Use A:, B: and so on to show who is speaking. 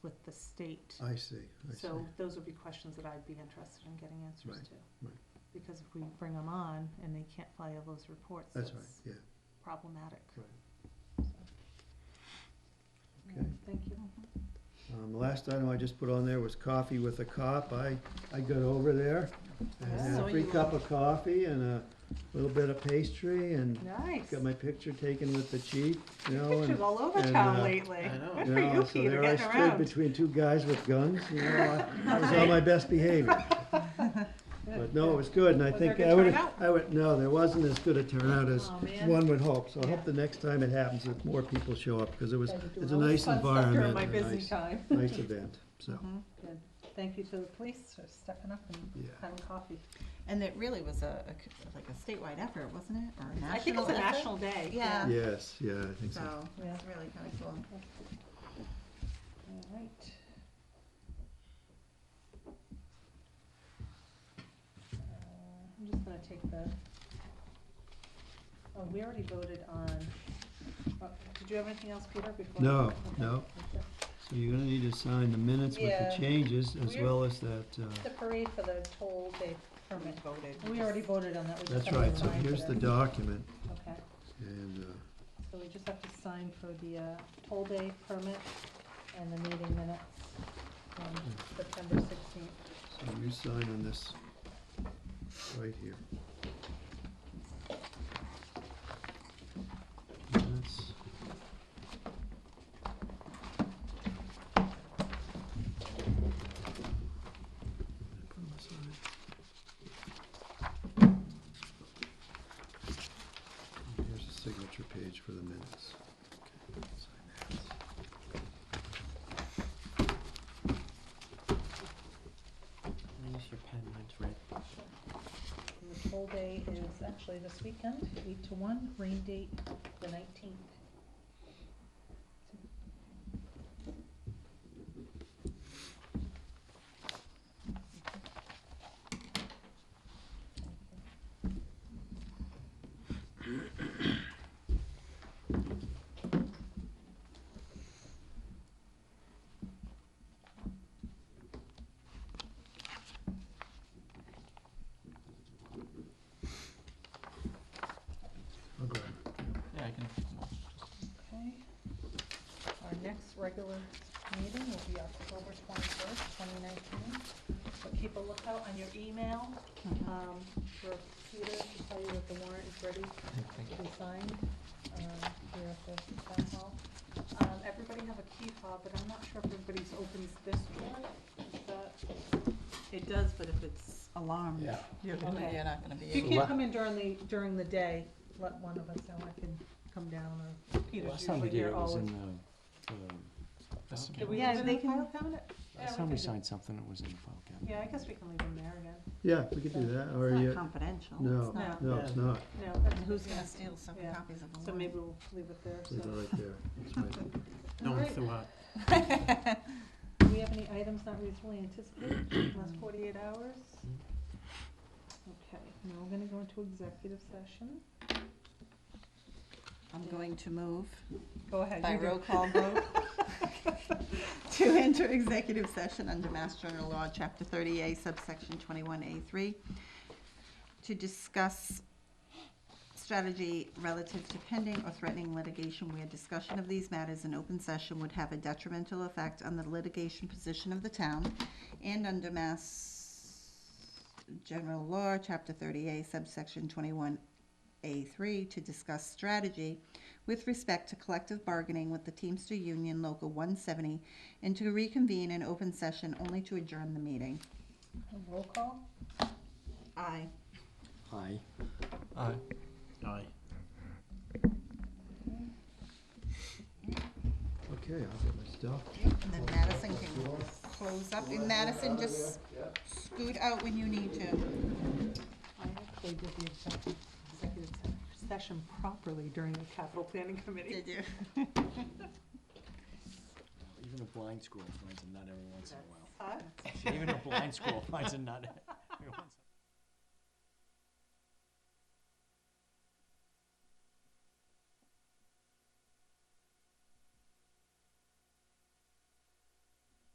A: state.
B: I see, Oh, I see.
A: So those would be questions that I'd be interested in getting answers
B: Right,
A: to.
B: right.
A: Because if we bring them on and they can't file those reports,
B: That's
A: that's
B: right, yeah.
A: problematic.
B: Right.
A: So, mm,
B: Okay.
A: Thank you.
C: Mm-hmm.
B: Um, the last item I just put on there was coffee with a cop. I, I got over there and had
A: So
B: a free
A: you-
B: cup of coffee and a little bit of pastry and
A: Nice.
B: got my picture taken with the chief, you know, and.
A: Pictures all over
B: and,
A: town
B: uh,
A: lately.
D: I know.
A: Good
B: you
A: for
B: know,
A: you,
B: so
A: Peter,
B: there I
A: getting
B: stood
A: around.
B: between two guys with guns, you know, I I was on my best behavior. But no, it was good and I
A: Was there a
B: think
A: good
B: I would,
A: turnout?
B: I would, no, there wasn't as good a turnout as
A: Aw, man.
B: one would hope. So I
A: Yeah.
B: hope the next time it happens that more people show up because it was,
C: Gotta do
B: it's a
C: all this
B: nice
C: fun stuff during
B: environment.
C: my
B: and a
C: busy
B: nice-
C: time.
B: Nice event, so,
A: Mhm.
C: Thank you to the police for stepping up and
B: yeah.
C: having coffee.
E: And it really was a, a c- like a statewide effort, wasn't it? Or a national
A: I think it's a
E: effort?
A: national day.
E: Yeah.
B: Yes, yeah, I think so.
E: So it was really kind of cool.
C: All right. Uh, I'm just gonna take the, oh, we already voted on, oh, did you have anything else, Peter, before?
B: No,
C: okay,
B: no.
C: that's
B: So you're gonna need to sign the minutes with
C: Yeah.
B: the changes as
C: We're-
B: well as that,
C: it.
B: uh,
C: The parade for the toll day permit.
E: voted.
C: We already voted on that. we just
B: that's
C: have to
B: right, so
C: sign for
B: here's the
C: that.
B: document
C: Okay,
B: and, uh,
C: so we just have to sign for the, uh, toll day permit and the meeting minutes on September sixteenth.
B: so you sign on this right here. Minutes. Put them aside. And Here's the signature page for the minutes. Okay, sign that.
D: Use your pen, mine's red.
C: And The toll day is actually this weekend, eight to one, rain date the nineteenth.
B: I'll grab it.
D: Yeah, I can.
C: Okay. Our next regular meeting will be October twenty-first, twenty nineteen. So keep a lookout on your email, um, for Peter to tell you that the warrant is ready
D: Thank you.
C: to be signed, um, here at the town hall. Um, everybody have a key fob, but I'm not sure if everybody's opens this door, is that?
E: It does, but if it's alarmed,
B: Yeah.
E: you're,
C: gonna- Okay. you're
E: not going to
C: If you
E: be.
C: can't come in during the, during the day, let one of us know, I can come down or Peter's
D: Last time
C: usually
D: we did
C: here
D: it was in
C: always.
D: the, um, file
A: Did we
D: cabinet.
C: Yeah,
A: leave it in
C: they
A: the file cabinet?
C: yeah, we
D: Last time we
C: could-
D: signed something, it was in the file cabinet.
A: Yeah, I guess we can leave them there again.
B: Yeah, we could do that, or
E: It's
B: you,
E: not confidential.
B: no.
E: It's not.
B: no, it's not,
C: No,
E: And
C: that's-
E: who's going to steal some
C: Yeah.
E: copies of the
C: So
E: warrant?
C: maybe we'll leave it there,
B: leave it
C: so.
B: right there, that's right.
D: No one
C: Alright.
D: threw out.
C: Do we have any items not reasonably anticipated in the last forty-eight hours? Okay, now we're gonna go into executive session.
E: I'm going to move
C: Go ahead.
E: by
C: you do.
E: roll call vote to enter executive session under Mass General Law, Chapter 30A, subsection 21A3, to discuss strategy relative to pending or threatening litigation where discussion of these matters in open session would have a detrimental effect on the litigation position of the town, and under Mass General Law, Chapter 30A, subsection 21A3, to discuss strategy with respect to collective bargaining with the Teamster Union Local 170, and to reconvene in open session only to adjourn the meeting.
C: Roll call?
E: Aye.
D: Aye. Aye. Aye.
B: Okay, I'll get my stuff.
E: And then Madison can close up, and Madison, just scoot out when you need to.
A: I actually did the exec- executive se- session properly during the capital planning committee.
E: Did you?
D: Even a blind squirrel finds a nut every once in a while.
A: Huh?
D: Even a blind squirrel finds a nut every once in a while.